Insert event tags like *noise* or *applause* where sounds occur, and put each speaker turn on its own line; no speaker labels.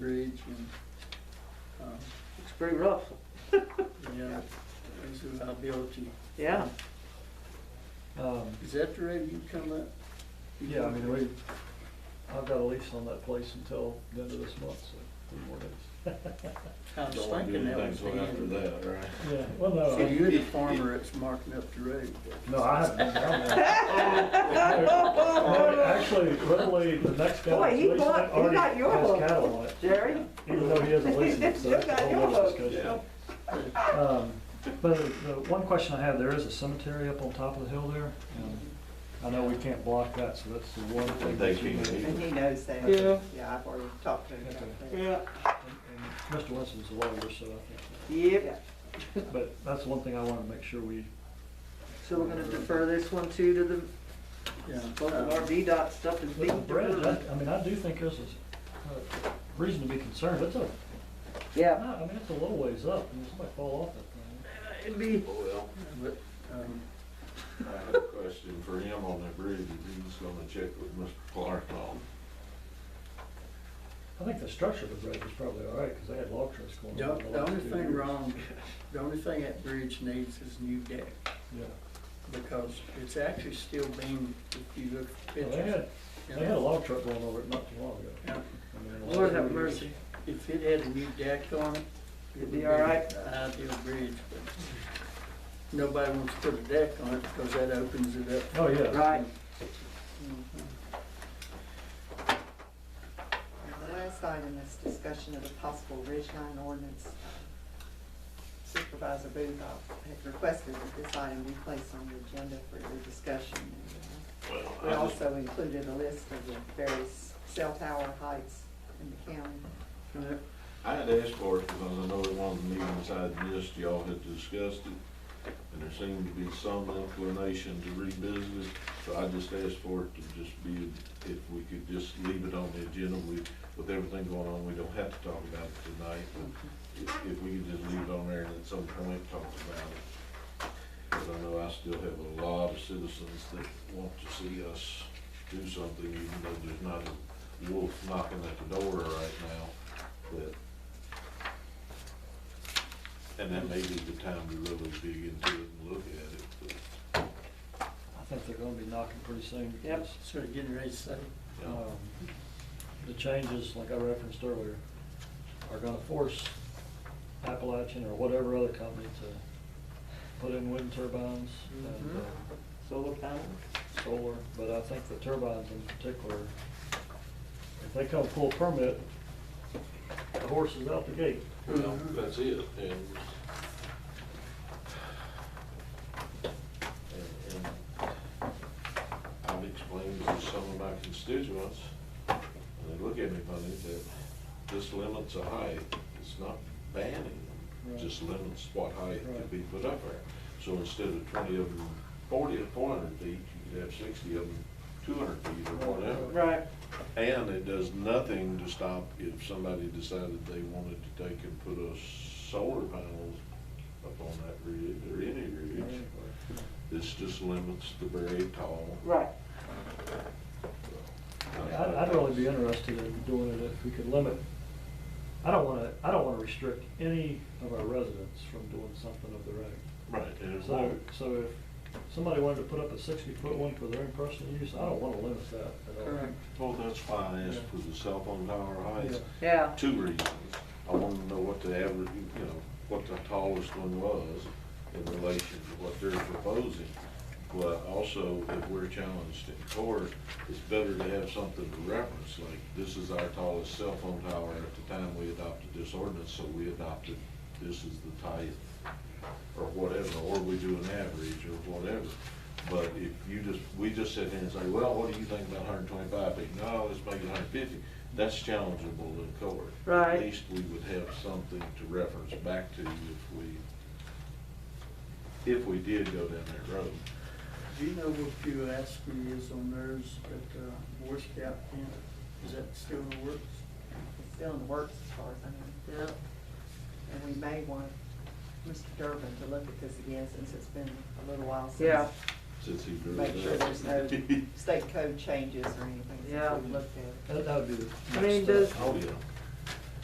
beach and, um,
It's pretty rough.
yeah, things in Albion.
*laughs* Yeah.
Um,
Is that the rate you come up?
yeah, I mean, we, I've got a lease on that place until the end of this month, so three more days.
I was thinking that was the end.
after that, right?
Yeah, well, no,
So
I-
you're the farmer that's marking up the rate.
no, I haven't been down there. *laughs* Actually, literally, the next guy
Boy,
that's
he
leasing it
bought- he
already
got your
has
hook.
cattle on it,
Jerry?
even though he
*laughs*
hasn't leased it, so
You
that's a
got
whole
your
other
hook.
discussion. Um, But the the one question I have, there is a cemetery up on top of the hill there, and I know we can't block that, so that's the one thing
They
that you
can't
need.
either.
And he knows that.
Yeah.
Yeah, I've already talked to him about that.
Yeah.
And- and Mr. Winston's a lawyer, so I
Yep.
think, but that's one thing I want to make sure we,
So we're gonna defer this one too to the,
Yeah.
both of our
uh,
VDOT stuff is
with the
being
bridge,
deferred.
I, I mean, I do think this is uh, reason to be concerned, it's a,
Yeah.
I mean, it's a little ways up, and it's might fall off that
It'd be,
Well,
But, um,
I have a question for him on that bridge, if he's gonna check with Mr. Clark on.
thing. I think the structure of the bridge is probably all right, because they had log trucks going.
the
over it
the
last
only
two
thing
years.
wrong, the only thing that bridge needs is new deck,
Yeah,
because it's actually still being, if you look at
Well, they
pictures.
had,
you
they had a
know,
log truck going over it not too long ago.
yeah.
I mean, in the
Lord
last
have
few years.
mercy, if it had a new deck on it. it
It'd
would
be all right.
an Ideal bridge, but nobody wants to put a deck on it, because that opens it up.
Oh, yeah,
right. And the last item is discussion of a possible Ridge Line ordinance. Supervisor Booth uh, had requested that this item be placed on the agenda for your discussion. And,
Well, I
uh, We
just-
also included a list of the various cell tower heights in the county.
Uh,
I had asked for it because I know in one of the meetings I missed, y'all had discussed it, and there seemed to be some inclination to revisit it. So I just asked for it to just be, if we could just leave it on the agenda, we, with everything going on, we don't have to talk about it tonight. but If, if we could just leave it on there and at some point talk about it. Because I know I still have a lot of citizens that want to see us do something, even though there's not a wolf knocking at the door right now, but. And that may be the time to really dig into it and look at it, but,
I think they're gonna be knocking pretty soon.
Yep.
because,
Sort of getting ready to say,
you know,
um, The changes, like I referenced earlier, are gonna force Appalachian or whatever other company to put in wind turbines and
Mhm.
uh,
Solar panels?
solar, but I think the turbines in particular, if they come full permit, the horse is out the gate.
well, that's it, and. And, and I've explained to some of my constituents, and they look at me funny, that this limits a height, it's not banning them,
Right.
it just limits what height
Right.
could be put up there. So instead of twenty of them, forty or four hundred feet, you could have sixty of them, two hundred feet or whatever.
Right.
And it does nothing to stop if somebody decided they wanted to take and put a solar panels up on that ridge or any ridge. This just limits the very tall.
Right.
I'd, I'd really be interested in doing it if we could limit, I don't wanna, I don't wanna restrict any of our residents from doing something of their own.
Right, and it
So,
won't.
so if somebody wanted to put up a sixty-foot one for their own personal use, I don't wanna limit that at all.
Correct.
Well, that's why I asked for the cell phone tower heights.
Yeah.
Two reasons. I wanted to know what the average, you know, what the tallest one was in relation to what they're proposing. But also, if we're challenged in court, it's better to have something to reference, like, this is our tallest cell phone tower at the time we adopted this ordinance, so we adopted, this is the type, or whatever, or we do an average, or whatever. But if you just, we just sit here and say, well, what do you think about hundred twenty-five feet? No, let's make it hundred fifty. That's challengeable in court.
Right.
At least we would have something to reference back to if we, if we did go down that road.
do you know what Pew Askew is on theirs at uh, Boy Scout camp? Is that still in the works?
It's still in the works as far as I know.
Yeah.
And we may want Mr. Durbin to look at this again since it's been a little while since.
Yeah.
Since he drew
Make sure
it up.
there's no state code changes or anything since
Yeah.
we looked at it.
That, that would be the
I
next
mean,
step.
does-
*laughs* Oh, yeah.